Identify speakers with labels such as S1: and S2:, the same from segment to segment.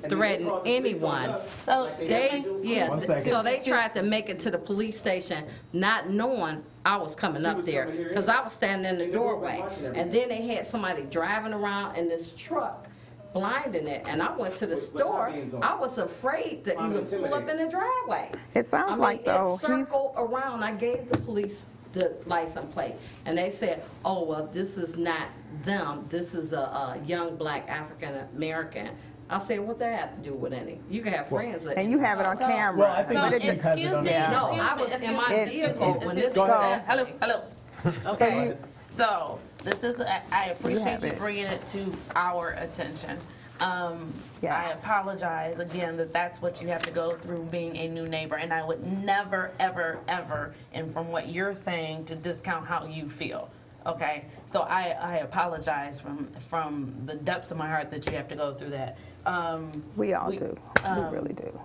S1: threaten anyone.
S2: So,
S1: They, yeah,
S3: One second.
S1: so they tried to make it to the police station, not knowing I was coming up there, because I was standing in the doorway. And then they had somebody driving around in this truck, blinding it, and I went to the
S4: With- with
S1: store.
S4: hot pans on.
S1: I was afraid to even pull up in the driveway.
S5: It sounds
S1: I mean,
S5: like, though,
S1: it
S5: he's-
S1: circled around, I gave the police the license plate, and they said, oh, well, this is not them, this is a, a young black African-American. I said, what that have to do with any? You can have friends that.
S5: And you have it on
S2: So-
S5: camera.
S3: Well, I think
S2: so
S5: but
S3: it's
S5: it-
S3: because
S2: excuse me,
S3: it don't- Yeah.
S1: No, I was
S2: excuse me,
S1: in my
S2: excuse me,
S1: vehicle
S2: excuse
S1: when
S2: me.
S1: this
S5: Go ahead.
S2: Hello, hello.
S5: So
S2: Okay,
S5: you-
S2: so this is, I- I appreciate
S5: have
S2: you
S5: it.
S2: bringing it to our attention. Um,
S5: Yeah.
S2: I apologize again that that's what you have to go through being a new neighbor, and I would never, ever, ever, and from what you're saying, to discount how you feel. Okay, so I, I apologize from from the depths of my heart that you have to go through that. Um,
S5: We all
S2: we- um,
S5: do. We really do.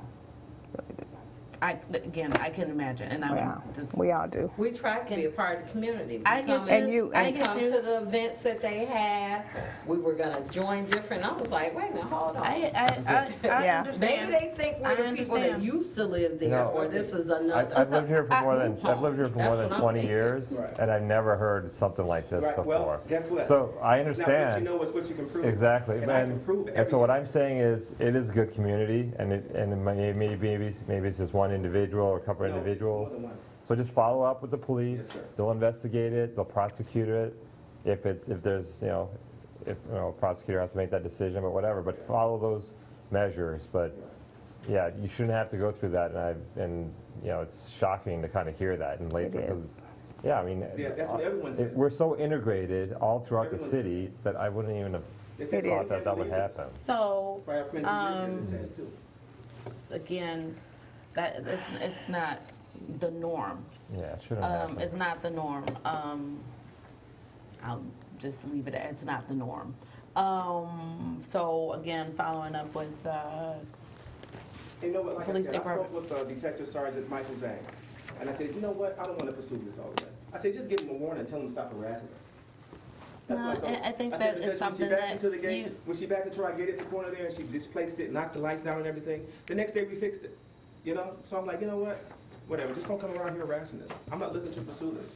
S2: I again, I can imagine, and I
S5: Yeah,
S2: would just
S5: we all do.
S1: We tried to be a part of the community. We
S2: I get
S1: come-
S2: you.
S5: And you-
S2: I
S1: We
S2: get
S1: come to
S2: you.
S1: the events that they had, we were gonna join different, I was like, wait a minute, hold on.
S2: I, I, I, I
S5: Yeah.
S2: understand.
S1: Maybe they think we're the
S2: I
S1: people that
S2: understand.
S1: used to live there,
S3: No.
S1: or this is
S6: I-
S1: another.
S6: I've lived here for
S2: I-
S6: more than, I've lived here for more
S1: That's
S6: than
S1: what I'm
S6: 20
S1: thinking.
S6: years,
S4: Right.
S6: and I've never heard something like this
S4: Right, well,
S6: before.
S4: guess what?
S6: So I
S4: Now, what you
S6: understand,
S4: know is what you can prove.
S6: exactly.
S4: And I can
S6: And
S4: prove
S6: so
S4: everything.
S6: what I'm saying is, it is a good community, and it, and it may- maybe, maybe, maybe it's just one individual or a couple
S4: No, it's- it
S6: individuals.
S4: wasn't one.
S6: So just follow up with the police,
S4: Yes, sir.
S6: they'll investigate it, they'll prosecute it, if it's, if there's, you know, if, you know, prosecutor has to make that decision, but whatever, but follow those measures, but, yeah, you shouldn't have to go through that, and I, and, you know, it's shocking to kind of hear that in Lathrop. 'cause-
S5: is.
S6: Yeah, I mean.
S4: Yeah, that's what everyone
S6: it-
S4: says.
S6: We're so integrated all throughout the
S4: Everyone says
S6: city that I wouldn't even have
S4: This
S5: It
S6: thought
S5: is.
S6: that that would happen.
S2: So
S4: Prior friends and relatives said it too.
S2: again, that it's it's not the norm.
S6: Yeah, it shouldn't
S2: Um,
S6: happen.
S2: it's not the norm. Um, I'll just leave it. at It's not the norm. Um, so again, following up with uh,
S4: You know what, like I
S2: Police
S4: said, I spoke
S2: department.
S4: with uh, Detective Sergeant Michael Zhang, and I said, you know what, I don't want to pursue this all the way. I said, just give him a warning and tell him to stop harassing us. That's what
S2: No,
S4: told
S2: I-
S4: him.
S2: I think
S4: said,
S2: that is
S4: because when she
S2: something
S4: backed
S2: that
S4: into the gate-
S2: you-
S4: When she backed into our gate at the corner there, and she displaced it, knocked the lights down and everything, the next day we fixed it, you know? So I'm like, you know what, whatever, just don't come around here harassing us. I'm not looking to pursue this.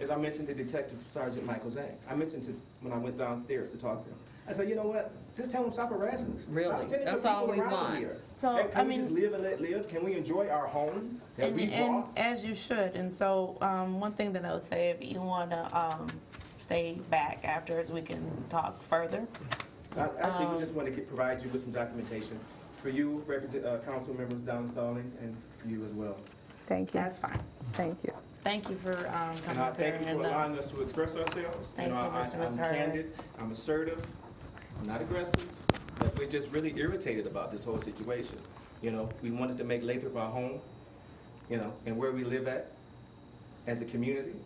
S4: As I mentioned to Detective Sergeant Michael Zhang, I mentioned to, when I went downstairs to talk to him, I said, you know what, just tell him stop harassing us. Stop
S1: Really?
S4: pretending
S1: That's
S4: for people
S1: all we
S4: around
S1: want.
S4: here.
S2: So,
S4: Can-
S2: I
S4: Can we
S2: mean-
S4: just live and let live? Can we enjoy our home that
S2: and,
S4: we
S2: and
S4: bought?
S2: as you should. And so um, one thing that I would say, if you want to um, stay back afterwards, we can talk further.
S4: Uh, Actually, we
S2: um,
S4: just want to get- provide you with some documentation for you, represent, uh, council members Don Stallings, and you as well.
S5: Thank you.
S2: That's fine.
S5: Thank you.
S2: Thank you for um, coming
S4: And I
S2: up here
S4: thank you for
S2: and, uh,
S4: allowing us to express ourselves.
S2: Thank
S4: know,
S2: you,
S4: I-
S2: Mr.
S4: I'm
S2: Missouri.
S4: candid, I'm assertive, I'm not aggressive, but we're just really irritated about this whole situation. You know, we wanted to make Lathrop our home, you know, and where we live at as a community,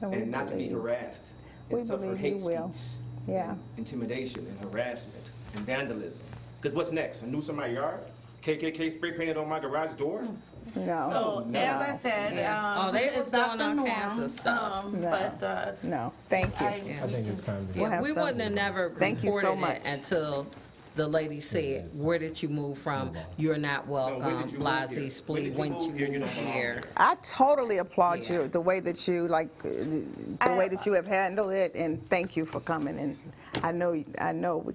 S5: And we
S4: and not to be
S5: believe-
S4: harassed
S5: we
S4: and suffer
S5: believe you
S4: hate
S5: will.
S4: speech.
S5: Yeah.
S4: and Intimidation and harassment and vandalism. Because what's next? A noose in my yard? KKK spray painted on my garage door?
S5: Mm. No,
S2: So, Oh, as I said,
S1: Yeah.
S2: um,
S1: Oh, they
S2: it's
S1: was
S2: not the
S1: doing all
S2: norm,
S1: kinds of stuff.
S2: um,
S5: No.
S2: but, uh,
S5: no, thank
S2: I,
S5: you.
S3: I think it's time to.
S5: We'll
S1: Yeah,
S5: have
S1: we
S5: some.
S1: wouldn't have never
S5: Thank you so
S1: reported it
S5: much.
S1: until the lady said, where did you move from? You're not
S4: No, when
S1: welcome,
S4: did you move here?
S1: Blasey,
S4: When
S1: Splee,
S4: did you
S1: when
S4: move
S1: did
S4: here?
S1: you
S4: You
S1: move
S4: don't belong
S1: here?
S5: I totally applaud
S1: Yeah.
S5: you the way that you like uh, the
S2: I-
S5: way that you have handled it, and thank you for coming. And I know, I know. we-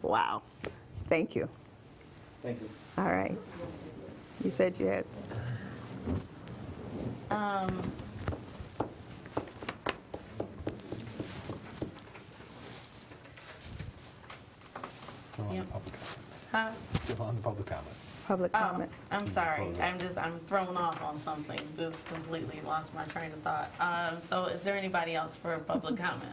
S5: Wow, thank you.
S4: Thank you.
S5: All right. You said you had.
S2: um,
S7: Still on the
S2: Yep.
S7: public comment.
S2: huh?
S7: Still on the public comment.
S5: Public
S2: Oh,
S5: comment.
S2: I'm sorry, I'm just, I'm thrown off on something, just completely lost my train of thought. Um, so is there anybody else for a public comment?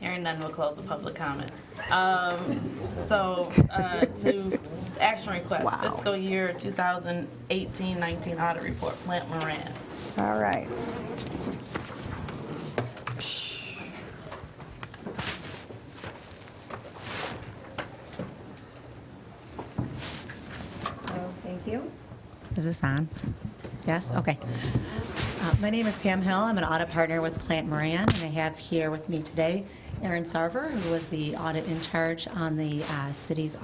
S2: Hearing none, we'll close the public comment. Um, so, uh, to action request,
S5: Wow.
S2: fiscal year 2018-19 audit report, Plant Moran.
S5: All right.
S8: Thank you. Is this on? Yes, okay. Uh, My name is Pam Hill, I'm an audit partner with Plant Moran, and I have here with me today Aaron Sarver, who was the audit in charge on the uh, city's